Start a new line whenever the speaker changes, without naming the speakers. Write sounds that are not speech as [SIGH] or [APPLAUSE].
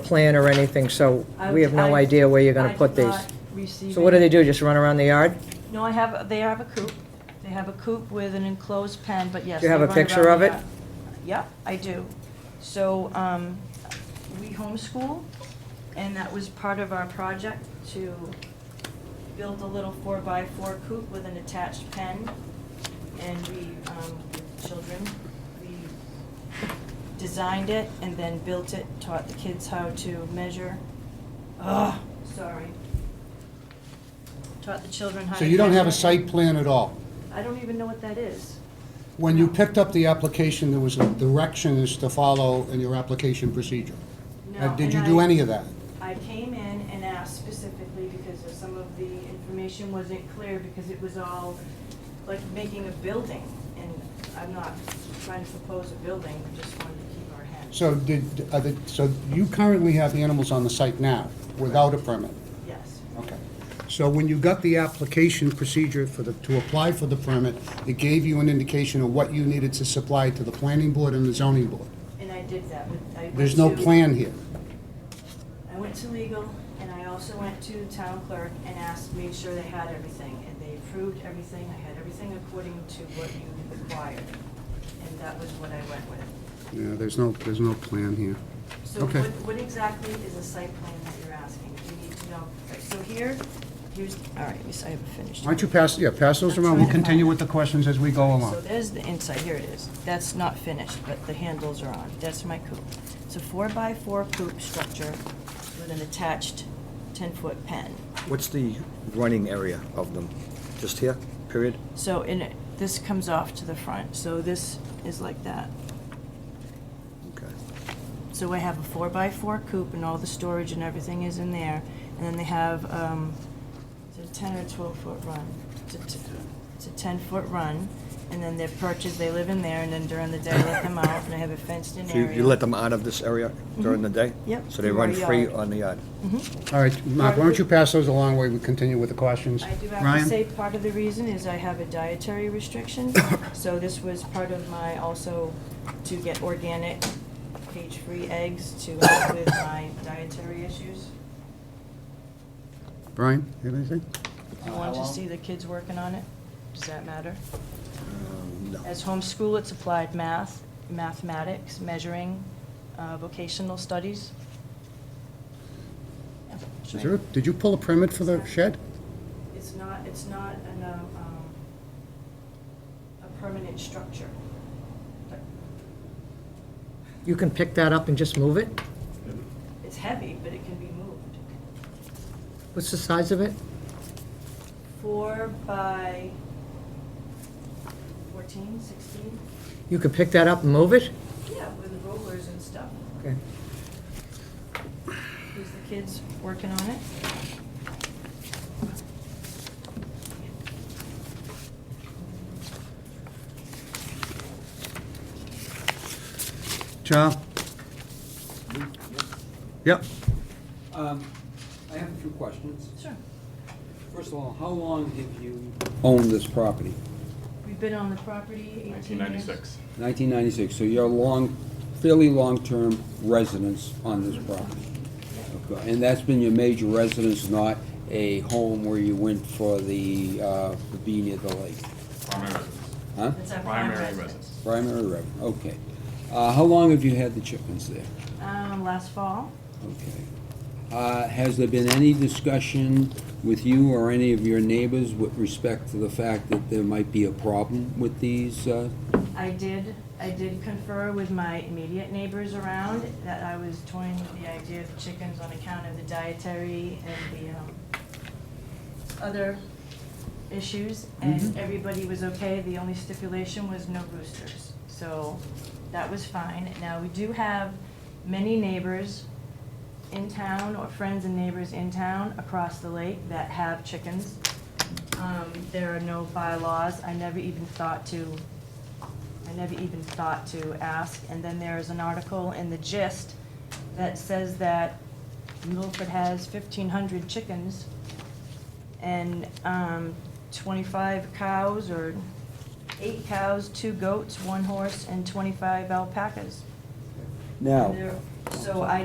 plan or anything, so
I-
we have no
I-
idea where you're going to
I did
put these.
not receive
So what do
any-
they do, just run around the yard?
No, I have, they have a coop. They have a coop with an enclosed pen, but yes.
Do you have
they
a
run
picture
around
of
the
it?
yard. Yeah, I do. So um, we homeschool, and that was part of our project to build a little four-by-four coop with an attached pen. And we, um, with children, we designed it and then built it, taught the kids how to measure. Ugh, sorry. Taught the children how to.
So you don't have a
measure.
site plan at all?
I don't even know what that is.
When you picked up the application, there was a directions to follow in your application procedure.
No,
Uh, Did
and
you do
I-
any of that?
I came in and asked specifically because of some of the information wasn't clear because it was all like making a building. And I'm not trying to propose a building, we just wanted to keep our hands.
So did, are the- so you currently have animals on the site now, without a permit?
Yes,
Okay. So when you got the application procedure for the, to apply for the permit, it gave you an indication of what you needed to supply to the planning board and the zoning board?
and I did that with, I went
There's no
to-
plan here.
I went to legal and I also went to town clerk and asked, made sure they had everything. And they approved everything, I had everything according to what you required. And that was what I went with.
Yeah, there's no, there's no plan here.
So
Okay.
what, what exactly is a site plan that you're asking? You need to know, Right, so here, here's, all right, yes, I haven't finished.
Why don't you pass, yeah, pass those around, we'll continue with the questions as we go
So
along.
there's the inside, here it is. That's not finished, but the handles are on. That's my coop. It's a four-by-four coop structure with an attached ten-foot pen.
What's the running area of them? Just here, period?
So in, it- this comes off to the front, so this is like that.
Okay.
So I have a four-by-four coop, and all the storage and everything is in there. And then they have, um, it's a ten or twelve-foot run. It's a t- It's a ten-foot run, and then they're perched, they live in there, and then during the day, I let them out, and I have a fenced-in
So you-
area. Mm-hmm.
you let them out of this area during the day?
Yep,
So they
in
run
our
free
yard.
on the yard?
Mm-hmm.
All right, Mark, why don't you pass those along while we continue with the questions?
I do have to
Ryan?
say, part of the reason is I have a dietary
[COUGHS]
restriction, so this was part of my, also to get organic, cage-free eggs to help with my dietary issues.
Brian, you have anything?
You want to see the kids working on it? Does that matter?
Um, No.
As homeschool, it's applied math, mathematics, measuring, uh, vocational studies. Yeah,
Is
sure.
there- Did you pull a permit for the shed?
It's not, it's not an, uh, um, a permanent structure. But
You can pick that up and just move it?
It's heavy, but it can be moved.
What's the size of it?
Four by 14, 16?
You can pick that up and move it?
Yeah, with rollers and stuff.
Okay.
Is the kids working on it?
John? Yep.
Um, I have a few questions.
Sure.
First of all, how long have you owned this property?
We've been on the property 18 years.
1996.
1996, so you're a long, fairly long-term residence on this property. Okay, And that's been your major residence, not a home where you went for the, uh, for being at the lake,
Primary residence.
huh?
It's our
Primary residence.
Primary residence, okay. Uh, How long have you had the chickens there?
Um, last fall,
Okay. Uh, Has there been any discussion with you or any of your neighbors with respect to the fact that there might be a problem with these? uh,
I did, I did confer with my immediate neighbors around that I was toying with the idea of chickens on account of the dietary and the, um, other issues, and everybody was okay. The only stipulation was no roosters. So that was fine. Now, we do have many neighbors in town, or friends and neighbors in town across the lake that have chickens. Um, There are no bylaws. I never even thought to, I never even thought to ask. And then there is an article in the gist that says that Milford has 1,500 chickens and um, 25 cows or eight cows, two goats, one horse, and 25 alpacas.
Now,
And they're- So I